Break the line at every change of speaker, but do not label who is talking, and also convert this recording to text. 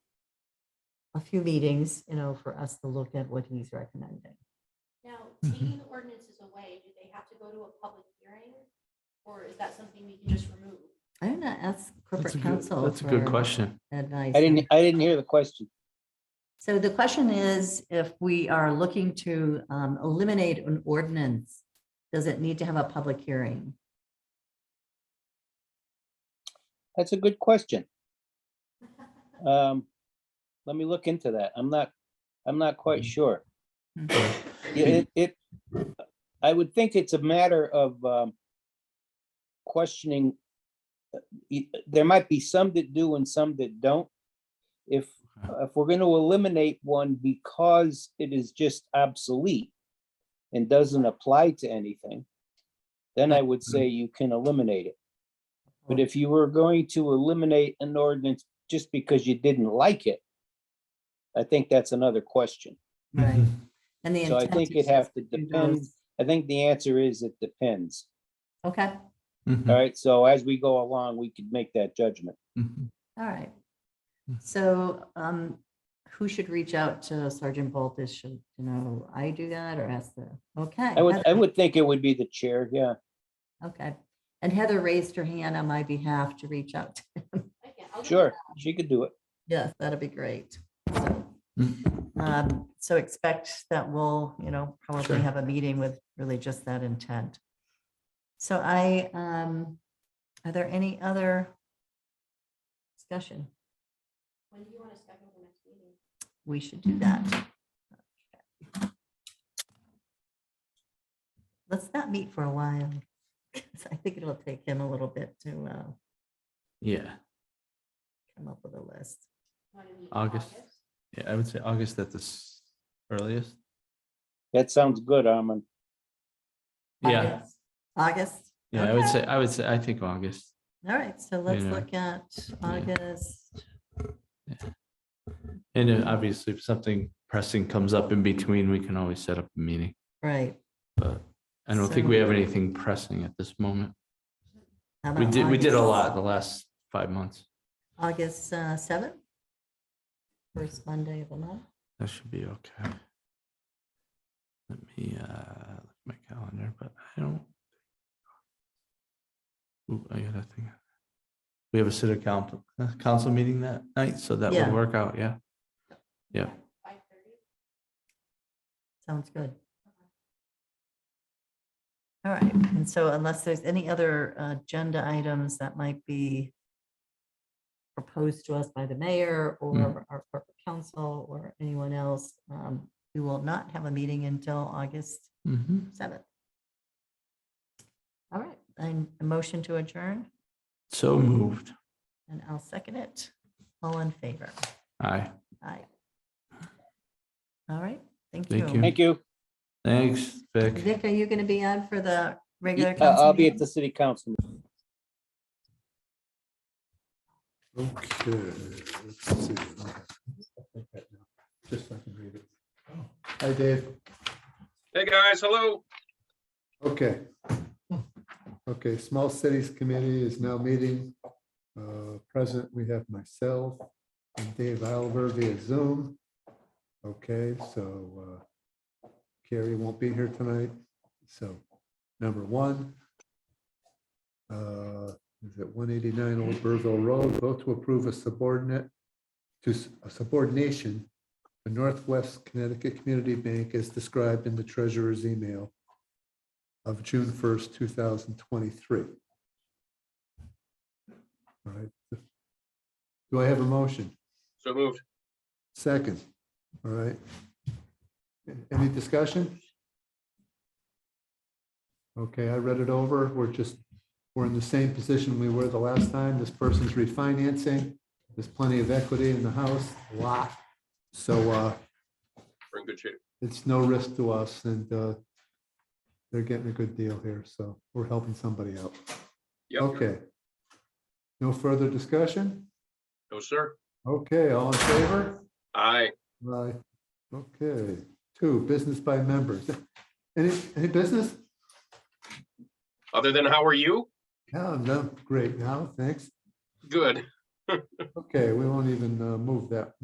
few meetings, you know, for us to look at what he's recommending.
Now,
Mhm.
taking the ordinances away, do they have to go to a public hearing? Or is that something we can just remove?
I'm gonna ask
That's a
corporate
good-
counsel.
That's a good
for
question.
Advice. Um,
I didn't, I didn't hear the question.
So the question is, if we are looking to um, eliminate an ordinance, does it need to have a public hearing?
That's a good question. Um, let me look into that. I'm not, I'm not quite sure. Yeah, It, it, I would think it's a matter of, um, questioning. uh, y- There might be some that do and some that don't. If, if we're gonna eliminate one because it is just obsolete and doesn't apply to anything, then I would say you can eliminate it. But
Oh.
if you were going to eliminate an ordinance just because you didn't like it, I think that's another question.
Mm-hmm.
Right. And the
So I
intent
think
is
it'd have to
do
depend.
those.
I think the answer is it depends.
Okay,
Mm-hmm.
All right, so as we go along, we could make that judgment.
Mm-hmm.
all right.
Mhm.
So um, who should reach out to Sergeant Boltis? Should, you know, I do that or ask the, okay.
I would, I
Heather.
would think it would be the chair, yeah.
Okay. And Heather raised her hand on my behalf to reach out. to-
Okay, I'll do
Sure, she could do it.
Yes, that'd be great. So
Mm-hmm.
um, so expect that we'll, you know,
Sure.
probably have a meeting with really just that intent. So I, um, are there any other discussion?
that. When do you want to schedule the next meeting?
We should do that. Let's not meet for a while. 'cause I think it'll take him a little bit to uh,
Yeah,
come up with a list.
Want to meet in
August. yeah, I would say August at the s- earliest.
That sounds good, Armin.
Yeah,
August- August?
yeah, I would
Okay.
say, I would say, I think August.
All right, so let's
Yeah.
look at August.
And then obviously, if something pressing comes up in between, we can always set up a meeting,
Right.
but I don't think
So-
we have anything pressing at this moment.
how
We
about
did, we did a
August-
lot the last five months.
August uh, 7th? First Monday of the month.
That should be okay. Let me, uh, look at my calendar, but I don't. Ooh, I got that thing. We have a city council, uh, council meeting that night, so that
Yeah.
would work out, yeah. Yeah.
Five thirty?
Sounds good. All right, and so unless there's any other uh, agenda items that might be proposed to us by the mayor
Hmm.
or our corporate council or anyone else, um, we will not have a meeting until August
Mhm.
7th. All right, and a motion to adjourn,
So moved.
and I'll second it. All in favor?
Aye,
Aye. All right, thank you.
Thank you.
Thank you.
thanks, Vic.
Vic, are you going to be on for the regular?
Uh, I'll
council
be at
meeting?
the city council.
Okay. let's see. Just so I can read it. Oh, Hi, Dave.
Hey, guys, hello.
Okay. Okay, Small Cities Committee is now meeting. Uh, Present, we have myself and Dave Alver via Zoom. Okay, so uh, Carrie won't be here tonight, so number one. uh, Is it one eighty-nine Old Burville Road, vote to approve a subordinate to s- a subordination to Northwest Connecticut Community Bank as described in the treasurer's email of June 1st, 2023. All right. Do I have a motion?
So moved.
Second, all right. Any discussion? Okay, I read it over. We're just, we're in the same position we were the last time. This person's refinancing. There's plenty of equity in the house, a lot. So uh,
We're in good shape.
it's no risk to us and uh, they're getting a good deal here, so we're helping somebody out.
Yep.
Okay. No further discussion?
No, sir.
Okay, all in favor?
Aye.
Aye. Okay, two, business by members. Any, any business?
Other than how are you?
No, no, great, no, thanks.
Good.
Okay, we won't even uh, move that